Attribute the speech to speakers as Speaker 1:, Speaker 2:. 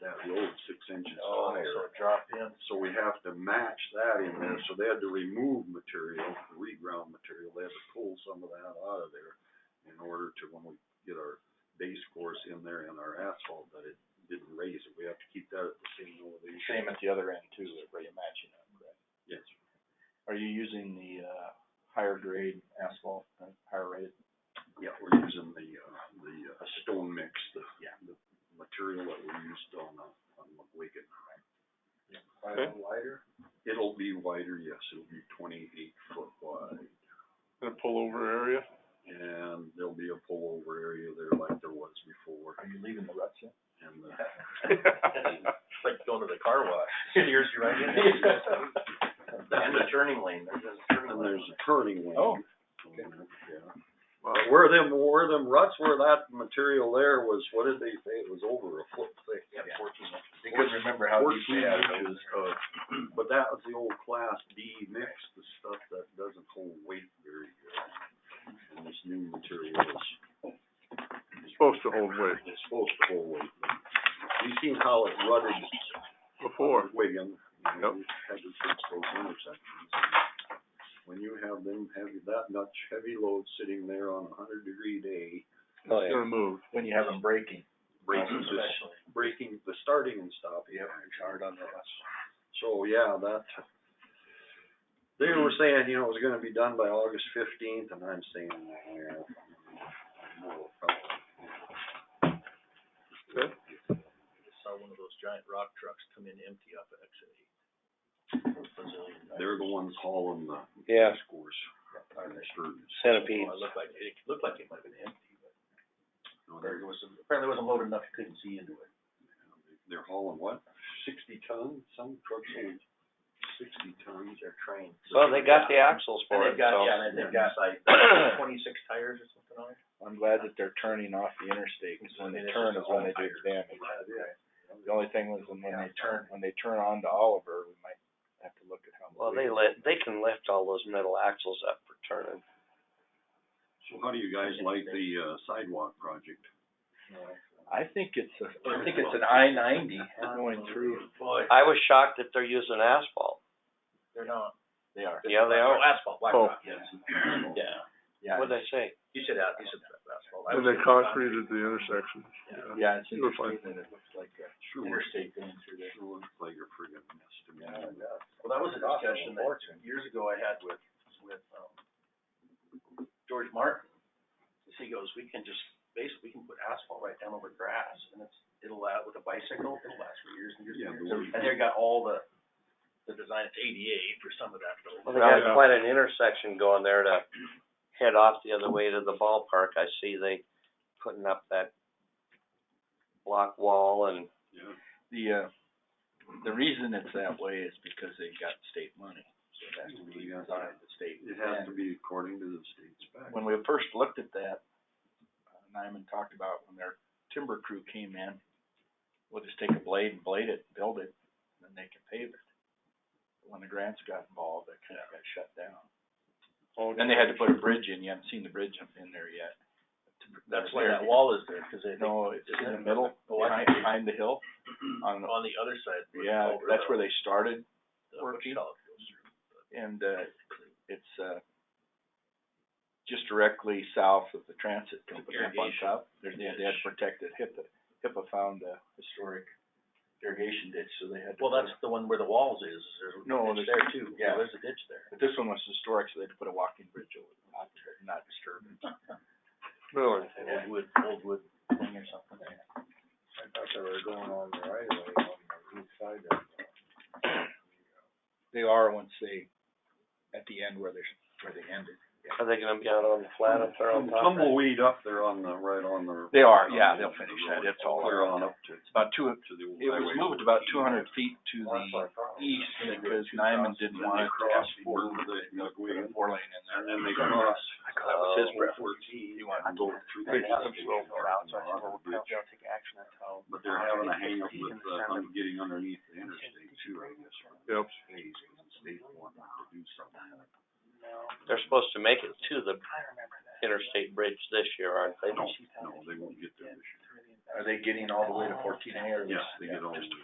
Speaker 1: road six inches
Speaker 2: Oh,
Speaker 1: higher.
Speaker 2: so it dropped in.
Speaker 1: So we have to match that in there, so they had to remove material, the reground material, they had to pull some of that out of there in order to, when we get our base course in there and our asphalt, that it didn't raise it, we have to keep that at the same elevation.
Speaker 2: Same at the other end too, where you're matching up, right?
Speaker 1: Yes,
Speaker 2: Are you using the, uh, higher grade asphalt, uh, higher rated?
Speaker 1: yeah, we're using the, uh, the, uh, stone mix, the,
Speaker 2: Yeah.
Speaker 1: the material that we used on, uh, on McWigan.
Speaker 2: Okay.
Speaker 1: Wider? It'll be wider, yes, it'll be twenty-eight foot wide.
Speaker 3: in a pullover area.
Speaker 1: and there'll be a pullover area there like there was before,
Speaker 2: Are you leaving the ruts yet?
Speaker 1: and, uh,
Speaker 2: It's like going to the car wash, steers you right in. And the turning lane, there's a turning
Speaker 1: and
Speaker 2: lane.
Speaker 1: there's a turning lane.
Speaker 2: Oh,
Speaker 1: Yeah. But where them, where them ruts, where that material there was, what did they say, it was over a foot thick?
Speaker 2: Yeah, fourteen inches. They couldn't remember how deep
Speaker 1: Fourteen
Speaker 2: they had it.
Speaker 1: inches of, but that was the old class D mix, the stuff that doesn't hold weight very good. And this new material is
Speaker 3: Supposed to hold weight
Speaker 1: It's supposed to hold weight. You seen how it rutted
Speaker 3: before.
Speaker 1: Wigan. you know,
Speaker 3: Yep.
Speaker 1: you Had to fix those intersections. When you have them heavy, that much heavy load sitting there on a hundred degree day,
Speaker 2: Oh,
Speaker 3: It's gonna move.
Speaker 2: When you have them braking.
Speaker 1: braking, just
Speaker 2: Especially.
Speaker 1: braking, the starting and stopping.
Speaker 2: Yep,
Speaker 1: it's hard on the bus. So, yeah, that, they were saying, you know, it was gonna be done by August fifteenth, and I'm saying, yeah. no, probably.
Speaker 3: Okay.
Speaker 2: Saw one of those giant rock trucks come in empty up at exit eight.
Speaker 1: They're the ones hauling the.
Speaker 4: Yeah.
Speaker 1: Scores. Screws.
Speaker 4: Centipede.
Speaker 2: Well, it looked like, it looked like it might have been empty, but
Speaker 1: No, they're-
Speaker 2: apparently it wasn't, apparently it wasn't loaded enough, you couldn't see into it.
Speaker 1: they're hauling what, sixty tons, some trucks hold sixty tons.
Speaker 2: Their train.
Speaker 4: Well, they got the axles
Speaker 2: And
Speaker 4: for
Speaker 2: they've
Speaker 4: it,
Speaker 2: got,
Speaker 4: so.
Speaker 2: yeah, and they've got like twenty-six tires or something on it.
Speaker 5: I'm glad that they're turning off the interstate, 'cause when they turn is when they do the damage. The only thing was when they turn, when they turn on to Oliver, we might have to look at how.
Speaker 4: Well, they let, they can lift all those metal axles up for turning.
Speaker 1: So how do you guys like the uh, sidewalk project?
Speaker 5: I think it's a, I think it's an I ninety going through.
Speaker 2: Boy,
Speaker 4: I was shocked that they're using asphalt.
Speaker 2: they're not. They are.
Speaker 4: Yeah, they are.
Speaker 2: Oh, asphalt, black
Speaker 3: Oh.
Speaker 2: rock, yes. Yeah, yeah,
Speaker 4: What'd they say?
Speaker 2: you said out, you said asphalt. I
Speaker 3: And
Speaker 2: was
Speaker 3: they
Speaker 2: thinking
Speaker 3: concreted the intersection.
Speaker 5: Yeah, it's
Speaker 3: You're fine.
Speaker 5: interesting that it looks like a
Speaker 1: Sure, looks-
Speaker 5: interstate going through there.
Speaker 1: sure looks like a friggin' mess to me.
Speaker 2: Well, that was a discussion that years ago I had with, with, um, George Martin. He goes, we can just, basically, we can put asphalt right down over grass and it's, it'll last with a bicycle, it'll last for years and years
Speaker 1: Yeah,
Speaker 2: and
Speaker 1: the
Speaker 2: years.
Speaker 1: way-
Speaker 2: And they got all the, the design, it's ADA for some of that though.
Speaker 4: Well, they got
Speaker 3: Yeah.
Speaker 4: quite an intersection going there to head off the other way to the ballpark. I see they putting up that block wall and,
Speaker 1: Yeah,
Speaker 5: The, uh, the reason it's that way is because they got state money, so it has to be
Speaker 1: Yeah.
Speaker 5: designed the state.
Speaker 1: it has
Speaker 5: And-
Speaker 1: to be according to the state spec.
Speaker 5: when we first looked at that, uh, Nyman talked about when their timber crew came in, we'll just take a blade and blade it, build it, and then they can pave it. When the grants got involved, that kinda got shut down. Then they had to put a bridge in, you haven't seen the bridge up in there yet.
Speaker 2: That's why that wall is there, cause they,
Speaker 5: No, it's in the middle,
Speaker 2: Oh, I
Speaker 5: behind,
Speaker 2: see.
Speaker 5: behind the hill, on,
Speaker 2: on the other side. where the
Speaker 5: yeah,
Speaker 2: culvert
Speaker 5: that's
Speaker 2: of
Speaker 5: where they started,
Speaker 2: the
Speaker 5: working.
Speaker 2: shell goes through.
Speaker 5: and uh, it's uh, just directly south of the transit company up on
Speaker 2: Irrigation
Speaker 5: top. There's, they had
Speaker 2: ditch.
Speaker 5: protected HIPAA, HIPAA found a historic irrigation ditch, so they had to.
Speaker 2: Well,
Speaker 5: put
Speaker 2: that's
Speaker 5: a-
Speaker 2: the one where the walls is, is there's a
Speaker 5: No,
Speaker 2: ditch there
Speaker 5: there's-
Speaker 2: too.
Speaker 5: yeah.
Speaker 2: There's a ditch there.
Speaker 5: But this one was historic, so they had to put a walking bridge over it, not, not disturb it.
Speaker 4: really,
Speaker 2: Old wood, old wood thing or something.
Speaker 1: I thought they were going on the right of way on the east side of.
Speaker 5: They are once they, at the end where they're, where they ended.
Speaker 4: are they gonna be out on the flat up there on top?
Speaker 1: Tumbleweed up there on the, right on the.
Speaker 5: They are,
Speaker 1: on
Speaker 5: yeah,
Speaker 1: the
Speaker 5: they'll
Speaker 1: edge of the
Speaker 5: finish
Speaker 1: road,
Speaker 5: that, it's all,
Speaker 1: Clear on up to,
Speaker 5: it's about two,
Speaker 1: to the old
Speaker 5: it was
Speaker 1: highway.
Speaker 5: moved about two hundred feet to the east because Nyman
Speaker 1: Then they
Speaker 5: didn't want it to have
Speaker 1: crossed
Speaker 5: four,
Speaker 1: over the
Speaker 5: put a
Speaker 1: McWigan,
Speaker 5: four lane in there.
Speaker 1: And then they cross.
Speaker 5: That was his
Speaker 1: uh, Fourteen.
Speaker 5: He wanted
Speaker 1: I go through the
Speaker 5: They
Speaker 1: gas
Speaker 5: just
Speaker 1: station
Speaker 5: roll
Speaker 1: or the bridge,
Speaker 2: take action until.
Speaker 1: but they're having a hang up with, uh, un- getting underneath the interstate too, I guess. or
Speaker 3: Yep.
Speaker 1: Phase, because the state wanted to do something.
Speaker 4: They're supposed to make it to the interstate bridge this year, aren't they?
Speaker 1: No, no, they won't get there this
Speaker 5: Are they getting all the way to fourteen A or?
Speaker 1: year. Yes, they get all the way.